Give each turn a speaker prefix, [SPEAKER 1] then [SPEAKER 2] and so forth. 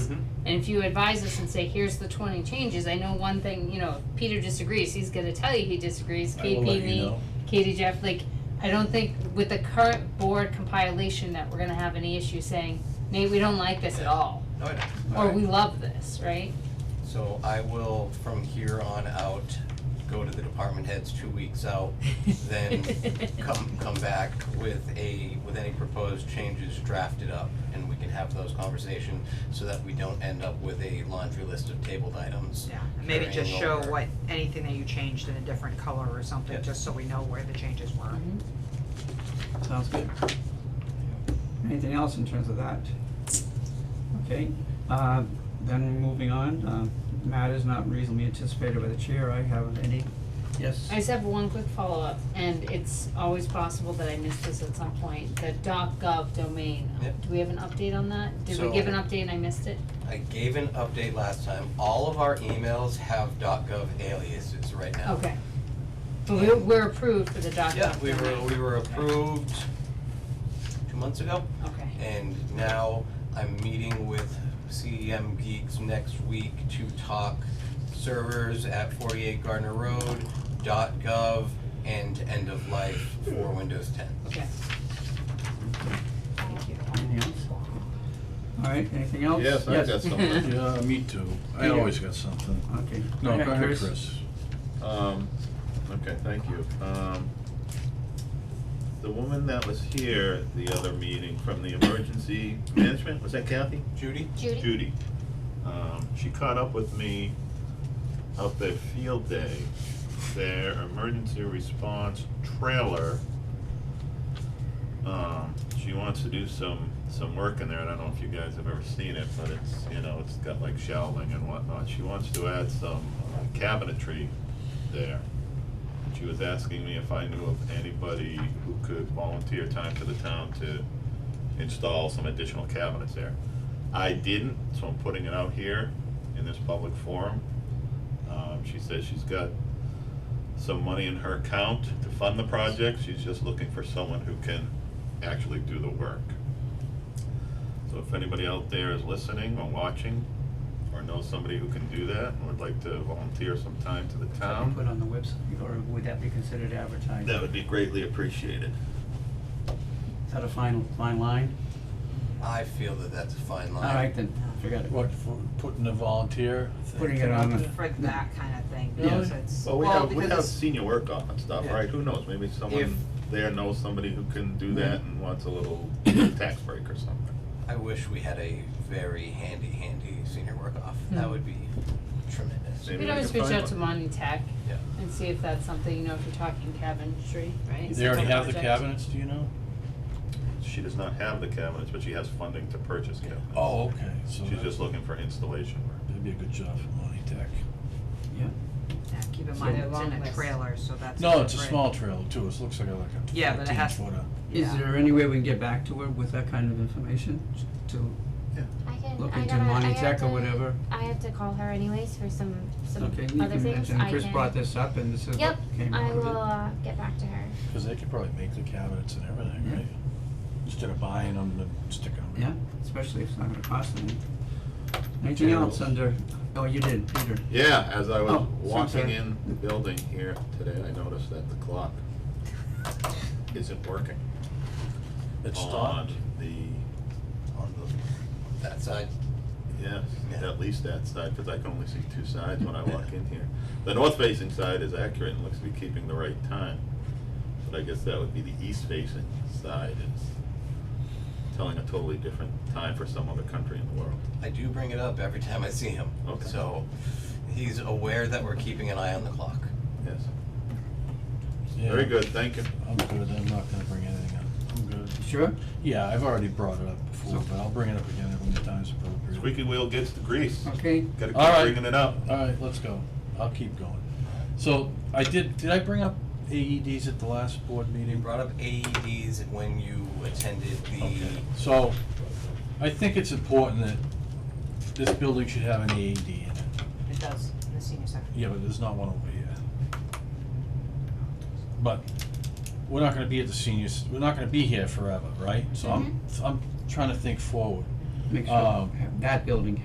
[SPEAKER 1] And if you advise us and say, here's the twenty changes, I know one thing, you know, if Peter disagrees, he's gonna tell you he disagrees,
[SPEAKER 2] I will
[SPEAKER 1] KP,
[SPEAKER 2] let you
[SPEAKER 1] me,
[SPEAKER 2] know.
[SPEAKER 1] Katie, Jeff, like, I don't think with the current board compilation that we're gonna have any issue saying, Nate, we don't like this at all,
[SPEAKER 2] No, I don't.
[SPEAKER 1] or
[SPEAKER 2] Alright.
[SPEAKER 1] Oh, we love this, right?
[SPEAKER 2] So I will, from here on out, go to the department heads two weeks out, then come, come back with a, with any proposed changes drafted up, and we can have those conversations so that we don't end up with a laundry list of tabled items.
[SPEAKER 3] Yeah, and maybe just
[SPEAKER 2] carrying
[SPEAKER 3] show
[SPEAKER 2] over.
[SPEAKER 3] what, anything that you changed in a different color or
[SPEAKER 2] Yeah.
[SPEAKER 3] something, just so we know where the changes were.
[SPEAKER 1] Mhm.
[SPEAKER 4] Sounds good. Anything else in terms of that? Okay, uh, then moving on, uh, matters not reasonably anticipated by the chair, I haven't any, yes?
[SPEAKER 1] I just have one quick follow-up, and it's always possible that I missed this at some point, the .gov domain,
[SPEAKER 2] Yep.
[SPEAKER 1] do we have an update on that? Did we
[SPEAKER 2] So-
[SPEAKER 1] give an update and I missed it?
[SPEAKER 2] I gave an update last time, all of our emails have .gov aliases right now.
[SPEAKER 1] Okay. But we, we're approved for the .gov
[SPEAKER 2] Yeah, we were,
[SPEAKER 1] domain.
[SPEAKER 2] we were approved two months ago.
[SPEAKER 1] Okay,
[SPEAKER 2] And now I'm meeting with CEM Geeks next week to talk servers at forty-eight Gardner Road, dot gov, and end of life for Windows ten.
[SPEAKER 1] okay.
[SPEAKER 3] Thank you.
[SPEAKER 4] Anything else? Alright, anything else?
[SPEAKER 5] Yes, I got something.
[SPEAKER 6] Yeah, me too. I
[SPEAKER 4] Peter.
[SPEAKER 6] always got something.
[SPEAKER 4] Okay.
[SPEAKER 6] No,
[SPEAKER 4] Yeah,
[SPEAKER 6] go ahead,
[SPEAKER 4] Chris.
[SPEAKER 6] Chris.
[SPEAKER 5] Um, okay, thank you. Um, the woman that was here at the other meeting from the emergency management, was that Kathy?
[SPEAKER 2] Judy?
[SPEAKER 1] Judy?
[SPEAKER 5] Judy. Um, she caught up with me up at field day. Their emergency response trailer. Um, she wants to do some, some work in there, and I don't know if you guys have ever seen it, but it's, you know, it's got like shelving and whatnot. She wants to add some uh, cabinetry there. She was asking me if I knew of anybody who could volunteer time for the town to install some additional cabinets there. I didn't, so I'm putting it out here in this public forum. Um, she says she's got some money in her account to fund the project, she's just looking for someone who can actually do the work. So if anybody out there is listening or watching, or knows somebody who can do that and would like to volunteer some time to the
[SPEAKER 4] Is that
[SPEAKER 5] town,
[SPEAKER 4] put on the website, or would that be considered advertising?
[SPEAKER 5] that would be greatly appreciated.
[SPEAKER 4] Is that a fine, fine line?
[SPEAKER 2] I feel that that's a fine line.
[SPEAKER 4] Alright then, forget it.
[SPEAKER 6] What, for putting a volunteer? thing
[SPEAKER 4] Putting it on the-
[SPEAKER 3] For that kind of thing,
[SPEAKER 4] Yeah.
[SPEAKER 3] because it's,
[SPEAKER 5] Well, we
[SPEAKER 3] well,
[SPEAKER 5] have, we
[SPEAKER 3] because
[SPEAKER 5] have
[SPEAKER 3] it's,
[SPEAKER 5] senior work off and stuff,
[SPEAKER 2] Yeah.
[SPEAKER 5] right? Who knows, maybe
[SPEAKER 2] If-
[SPEAKER 5] someone there knows somebody who can do that and wants a little tax break or something.
[SPEAKER 2] I wish we had a very handy, handy senior work off. That would be tremendous.
[SPEAKER 5] Maybe
[SPEAKER 1] We'd
[SPEAKER 5] we
[SPEAKER 1] always
[SPEAKER 5] can
[SPEAKER 1] reach
[SPEAKER 5] find
[SPEAKER 1] out
[SPEAKER 5] one.
[SPEAKER 1] to Monty Tech
[SPEAKER 2] Yeah.
[SPEAKER 1] and see if that's something, you know, if you're talking cabinetry, right?
[SPEAKER 6] They already have the
[SPEAKER 1] Project.
[SPEAKER 6] cabinets, do you know?
[SPEAKER 5] She does not have the cabinets, but she has funding to purchase cabinets.
[SPEAKER 6] Oh, okay, so
[SPEAKER 5] She's
[SPEAKER 6] that-
[SPEAKER 5] just looking for installation work.
[SPEAKER 6] that'd be a good job for Monty Tech.
[SPEAKER 4] Yeah,
[SPEAKER 3] yeah, keep in mind,
[SPEAKER 1] So-
[SPEAKER 3] it's in
[SPEAKER 1] Long
[SPEAKER 3] a
[SPEAKER 1] list.
[SPEAKER 3] trailer, so that's.
[SPEAKER 6] No, it's a
[SPEAKER 3] separate.
[SPEAKER 6] small trailer too, it looks like a, like a
[SPEAKER 3] Yeah, but it
[SPEAKER 6] fourteen
[SPEAKER 3] has-
[SPEAKER 6] footer.
[SPEAKER 4] is
[SPEAKER 3] Yeah.
[SPEAKER 4] there any way we can get back to her with that kind of information, to
[SPEAKER 7] I can,
[SPEAKER 4] look
[SPEAKER 7] I
[SPEAKER 4] into
[SPEAKER 7] gotta- I
[SPEAKER 4] Monty
[SPEAKER 7] have
[SPEAKER 4] Tech or
[SPEAKER 7] to-
[SPEAKER 4] whatever?
[SPEAKER 7] I have to call her anyways for some, some other
[SPEAKER 4] Okay,
[SPEAKER 7] things.
[SPEAKER 4] you can mention,
[SPEAKER 7] I
[SPEAKER 4] Chris
[SPEAKER 7] can-
[SPEAKER 4] brought this up and this is what
[SPEAKER 7] Yep,
[SPEAKER 4] came out
[SPEAKER 7] I
[SPEAKER 4] of it.
[SPEAKER 7] will, uh, get back to her.
[SPEAKER 6] Cause they could probably make the cabinets and everything,
[SPEAKER 4] Yeah.
[SPEAKER 6] right? Instead of buying them and sticking them.
[SPEAKER 4] Yeah, especially if it's not gonna cost anything. Anything else under, oh, you did, Peter.
[SPEAKER 5] Yeah, as I
[SPEAKER 4] Oh,
[SPEAKER 5] was
[SPEAKER 4] so
[SPEAKER 5] walking
[SPEAKER 4] sorry.
[SPEAKER 5] in the building here today, I noticed that the clock isn't working
[SPEAKER 6] It's
[SPEAKER 5] on
[SPEAKER 6] stopped.
[SPEAKER 5] the,
[SPEAKER 2] On the, that side.
[SPEAKER 5] yes, at least that side, because I can only see two sides when I walk in here. The north facing side is accurate and looks to be keeping the right time. But I guess that would be the east facing side is telling a totally different time for some other country in the world.
[SPEAKER 2] I do bring it up every time I see him.
[SPEAKER 5] Okay.
[SPEAKER 2] So he's aware that we're keeping an eye on the clock.
[SPEAKER 5] Yes,
[SPEAKER 6] Yeah.
[SPEAKER 5] very good, thank you.
[SPEAKER 6] I'm good, I'm not gonna bring anything up, I'm good.
[SPEAKER 4] Sure?
[SPEAKER 6] Yeah, I've already brought it up before, but I'll bring it up again if the time's appropriate.
[SPEAKER 5] Squeaky wheel gets the grease,
[SPEAKER 4] Okay,
[SPEAKER 5] gotta
[SPEAKER 6] All right.
[SPEAKER 5] keep bringing it up.
[SPEAKER 6] All right, let's go. I'll keep going. So I did, did I bring up AEDs at the last board
[SPEAKER 2] You
[SPEAKER 6] meeting?
[SPEAKER 2] brought up AEDs when you attended
[SPEAKER 6] Okay,
[SPEAKER 2] the
[SPEAKER 6] so I think it's important that this building should have an AED in it.
[SPEAKER 3] It does, in the senior center.
[SPEAKER 6] Yeah, but there's not one over here. But we're not gonna be at the seniors, we're not gonna be here forever, right? So I'm, I'm trying to think forward.
[SPEAKER 4] make sure,
[SPEAKER 6] Um,
[SPEAKER 4] Uh, that building